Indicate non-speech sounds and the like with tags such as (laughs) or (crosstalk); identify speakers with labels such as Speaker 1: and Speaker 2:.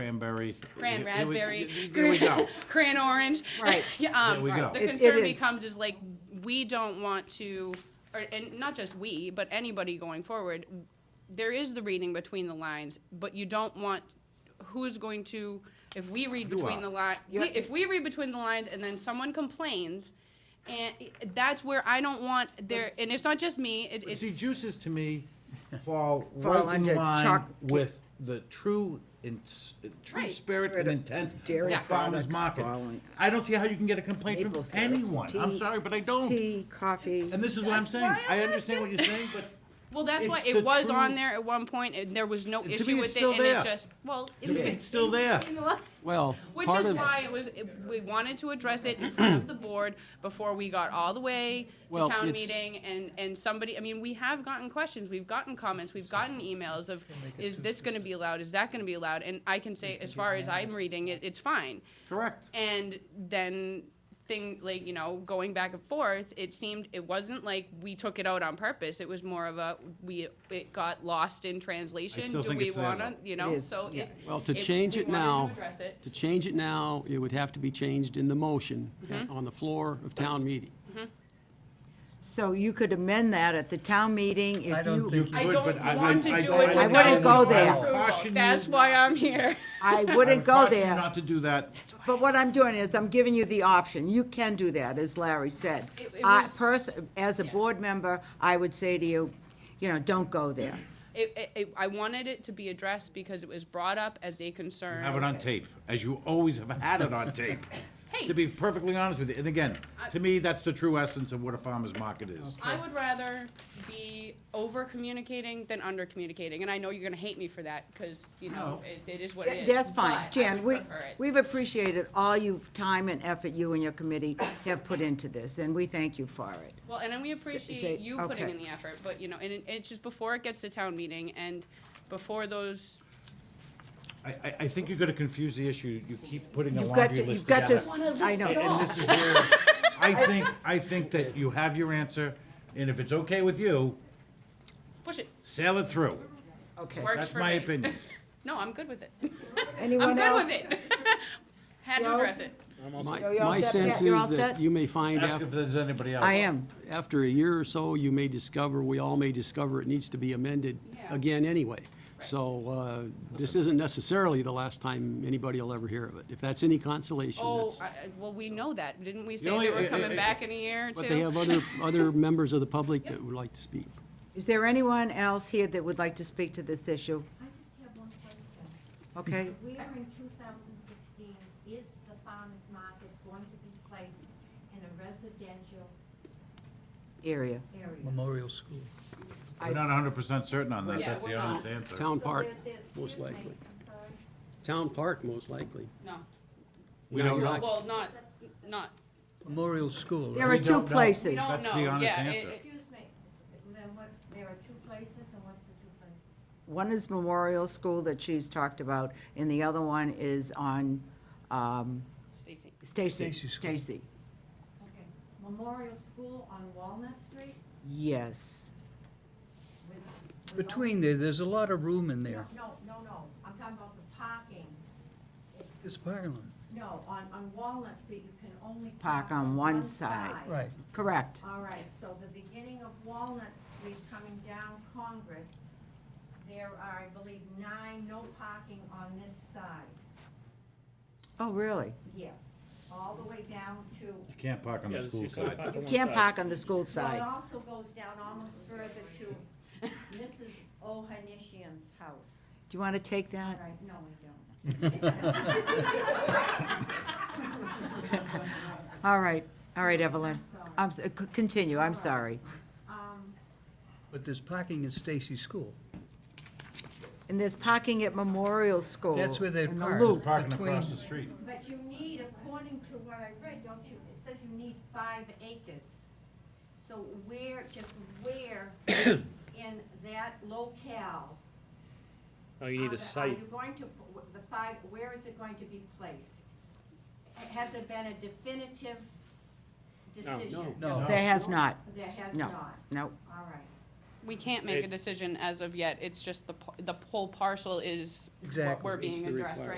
Speaker 1: cranberry.
Speaker 2: Cran
Speaker 1: Here we-
Speaker 2: raspberry.
Speaker 1: There we go.
Speaker 2: (laughs) Cran orange.
Speaker 3: Right.
Speaker 2: (laughs) Yeah, um,
Speaker 1: There we go.
Speaker 2: The
Speaker 3: It- it
Speaker 2: concern
Speaker 3: is.
Speaker 2: becomes is like, we don't want to, or, and not just we, but anybody going forward, there is the reading between the lines, but you don't want, who's going to, if we read
Speaker 1: You
Speaker 2: between
Speaker 1: are.
Speaker 2: the lines,
Speaker 3: You-
Speaker 2: if we read between the lines and then someone complains, and that's where I don't want there, and it's not just me, it- it's.
Speaker 1: See, juices to me fall
Speaker 3: (laughs) Fall
Speaker 1: right in
Speaker 3: under
Speaker 1: line
Speaker 3: choc-
Speaker 1: with the true, in- true
Speaker 2: Right.
Speaker 1: spirit and intent of
Speaker 3: Dairy
Speaker 1: the farmer's
Speaker 3: products
Speaker 1: market.
Speaker 3: falling.
Speaker 1: I don't see how you can get a complaint from
Speaker 3: Maple syrups,
Speaker 1: anyone. I'm
Speaker 3: tea,
Speaker 1: sorry, but I don't.
Speaker 3: Tea, coffee.
Speaker 1: And this is what I'm saying.
Speaker 2: why
Speaker 1: I understand what you're saying,
Speaker 2: (laughs)
Speaker 1: but
Speaker 2: Well, that's why
Speaker 1: It's
Speaker 2: it
Speaker 1: the
Speaker 2: was
Speaker 1: true-
Speaker 2: on there at one point, and there was no
Speaker 1: To
Speaker 2: issue
Speaker 1: me,
Speaker 2: with
Speaker 1: it's
Speaker 2: it,
Speaker 1: still
Speaker 2: and
Speaker 1: there.
Speaker 2: it just, well. it
Speaker 1: me,
Speaker 2: was-
Speaker 1: it's
Speaker 2: (laughs)
Speaker 1: still there.
Speaker 4: Well,
Speaker 2: Which
Speaker 4: part
Speaker 2: is
Speaker 4: of-
Speaker 2: why it was, it- we wanted to address it in front of the board before we got all the way to
Speaker 4: Well,
Speaker 2: town
Speaker 4: it's-
Speaker 2: meeting, and, and somebody, I mean, we have gotten questions, we've gotten comments, we've gotten emails of, is this gonna be allowed, is that gonna be allowed, and I can say, as far as I'm reading it, it's fine.
Speaker 1: Correct.
Speaker 2: And then thing like you know going back and forth, it seemed it wasn't like we took it out on purpose. It was more of a we it got lost in translation.
Speaker 1: still
Speaker 2: Do
Speaker 1: think
Speaker 2: we
Speaker 1: it's there,
Speaker 2: want to
Speaker 1: though.
Speaker 2: you know
Speaker 3: It is,
Speaker 2: so
Speaker 3: yeah.
Speaker 2: it,
Speaker 4: Well, to
Speaker 2: if
Speaker 4: change
Speaker 2: we
Speaker 4: it
Speaker 2: wanted to
Speaker 4: now,
Speaker 2: address it-
Speaker 4: to change it now, it would have to be changed in the motion
Speaker 2: Mm-hmm.
Speaker 4: at- on the floor of town meeting.
Speaker 3: So you could amend that at the town meeting if you,
Speaker 2: I don't
Speaker 1: but I-
Speaker 2: want to
Speaker 1: I-
Speaker 2: do
Speaker 1: I-
Speaker 2: it.
Speaker 3: I wouldn't go there.
Speaker 1: I would caution you-
Speaker 2: That's why I'm here.
Speaker 3: I
Speaker 1: I would
Speaker 3: wouldn't go
Speaker 1: caution you
Speaker 3: there.
Speaker 1: Not to do that.
Speaker 3: But what I'm doing is I'm giving you the option. You can do that, as Larry said.
Speaker 2: It- it
Speaker 3: I,
Speaker 2: was-
Speaker 3: pers, as a
Speaker 2: Yeah.
Speaker 3: board member, I would say to you, you know, don't go there.
Speaker 2: It, it, it, I wanted it to be addressed because it was brought up as a concern.
Speaker 1: Have it on tape, as you always have had it on tape.
Speaker 2: (laughs) Hey.
Speaker 1: To be perfectly honest with you, and again, to me, that's the true essence of what a farmer's market is.
Speaker 2: I would rather be over communicating than under communicating, and I know you're gonna hate me for that, because, you know,
Speaker 1: No.
Speaker 2: it, it is what it is.
Speaker 3: That's
Speaker 2: but I
Speaker 3: fine. Jan,
Speaker 2: would
Speaker 3: we,
Speaker 2: prefer it.
Speaker 3: we've appreciated all you, time and effort you and your committee have put into this, and we thank you for it.
Speaker 2: Well, and then we
Speaker 3: say-
Speaker 2: appreciate you putting
Speaker 3: okay.
Speaker 2: in the effort, but, you know, and it, it's just before it gets to town meeting and before those,
Speaker 1: I, I, I think you're gonna confuse the issue. You keep putting a
Speaker 3: You've got
Speaker 1: laundry
Speaker 3: to,
Speaker 1: list
Speaker 3: you've got
Speaker 1: together.
Speaker 3: to,
Speaker 2: wanna list
Speaker 3: I know.
Speaker 2: it
Speaker 1: And this is
Speaker 3: (laughs)
Speaker 1: where, I think, I think that you have your answer, and if it's okay with you,
Speaker 2: push it,
Speaker 1: sail it through.
Speaker 3: Okay.
Speaker 2: works
Speaker 1: That's
Speaker 2: for
Speaker 1: my
Speaker 2: me.
Speaker 1: opinion.
Speaker 2: (laughs) No, I'm good with it. I'm
Speaker 3: Anyone
Speaker 2: good
Speaker 3: else?
Speaker 2: with it. (laughs) Had to
Speaker 3: Joe?
Speaker 2: address it.
Speaker 4: My,
Speaker 3: you're all
Speaker 4: my
Speaker 3: set,
Speaker 4: sense
Speaker 3: Pat? You're
Speaker 4: is
Speaker 3: all
Speaker 4: that
Speaker 3: set?
Speaker 4: you may find
Speaker 1: Ask if
Speaker 4: after,
Speaker 1: there's anybody else.
Speaker 3: I am.
Speaker 4: after a year or so, you may discover, we all may discover it needs to be amended
Speaker 2: Yeah.
Speaker 4: again anyway. So, uh, this isn't necessarily the last time anybody will ever hear of it. If that's any consolation,
Speaker 2: Oh,
Speaker 4: that's,
Speaker 2: I- I- well, we know that, didn't we say
Speaker 1: only-
Speaker 2: that we're
Speaker 1: it-
Speaker 2: coming
Speaker 1: it-
Speaker 2: back in a year or two?
Speaker 4: but they
Speaker 2: (laughs)
Speaker 4: have other, other members of the public that would like to speak.
Speaker 3: Is there anyone else here that would like to speak to this issue?
Speaker 5: I just have one question.
Speaker 3: Okay?
Speaker 5: Where in two thousand sixteen is the farmer's market going to be placed in a residential
Speaker 3: Area.
Speaker 5: area?
Speaker 6: Memorial School.
Speaker 1: We're not hundred percent certain on that.
Speaker 2: Yeah,
Speaker 1: That's the
Speaker 2: we're
Speaker 1: honest
Speaker 2: not.
Speaker 1: answer.
Speaker 4: Town
Speaker 5: So
Speaker 4: park,
Speaker 5: there- there's-
Speaker 4: most
Speaker 5: excuse me,
Speaker 4: likely.
Speaker 5: I'm sorry.
Speaker 4: Town park, most likely.
Speaker 2: No.
Speaker 1: We
Speaker 4: No,
Speaker 1: don't
Speaker 4: you're
Speaker 1: know.
Speaker 4: not-
Speaker 2: Well, not, not,
Speaker 6: Memorial School,
Speaker 3: There
Speaker 6: right?
Speaker 3: are
Speaker 1: We
Speaker 3: two
Speaker 1: don't know.
Speaker 2: we
Speaker 3: places.
Speaker 2: don't
Speaker 1: That's the
Speaker 2: know,
Speaker 1: honest
Speaker 2: yeah. it-
Speaker 1: answer.
Speaker 2: it-
Speaker 5: Excuse me, then what, there are two places, and what's the two places?
Speaker 3: One is Memorial School that she's talked about, and the other one is on um,
Speaker 2: Stacy.
Speaker 3: Stacy.
Speaker 6: Stacy School.
Speaker 3: Stacy.
Speaker 5: Okay, Memorial School on Walnut Street?
Speaker 3: Yes.
Speaker 5: with- with all-
Speaker 6: Between there, there's a lot of room in there.
Speaker 5: No, no, no, I'm talking about the parking. It's-
Speaker 6: It's a parking lot.
Speaker 5: No, on, on Walnut Street, you can only.
Speaker 3: Park on one side.
Speaker 6: Right.
Speaker 3: Correct.
Speaker 5: All right, so the beginning of Walnut Street coming down Congress, there are, I believe, nine, no parking on this side.
Speaker 3: Oh, really?
Speaker 5: Yes, all the way down to,
Speaker 1: You can't park on the school side.
Speaker 3: You can't park on the school
Speaker 5: Well, it
Speaker 3: side.
Speaker 5: also goes down almost further to Mrs. Ohanishian's house.
Speaker 3: Do you want to take
Speaker 5: All
Speaker 3: that?
Speaker 5: right, no, we don't.
Speaker 3: All right, all right, Evelyn. I'm, s- c- continue, I'm sorry.
Speaker 6: But there's parking at Stacy School.
Speaker 3: And there's parking at Memorial School.
Speaker 6: That's where they
Speaker 3: in the
Speaker 6: park.
Speaker 3: loop.
Speaker 1: Parking
Speaker 6: Between-
Speaker 1: across the street.
Speaker 5: But you need, according to what I read, don't you, it says you need five acres. So where, just
Speaker 3: (coughs)
Speaker 5: where in that locale?
Speaker 7: Oh, you
Speaker 5: are
Speaker 7: need
Speaker 5: the-
Speaker 7: a site.
Speaker 5: Are you going to, p- the five, where is it going to be placed? Has it been a definitive decision?
Speaker 6: No.
Speaker 3: There has not.
Speaker 5: There has
Speaker 3: No,
Speaker 5: not,
Speaker 3: no.
Speaker 5: all right.
Speaker 2: We can't make a
Speaker 7: It-
Speaker 2: decision as of yet, it's just the, p- the whole parcel is what
Speaker 6: Exactly.
Speaker 2: we're
Speaker 6: It's
Speaker 2: being addressed right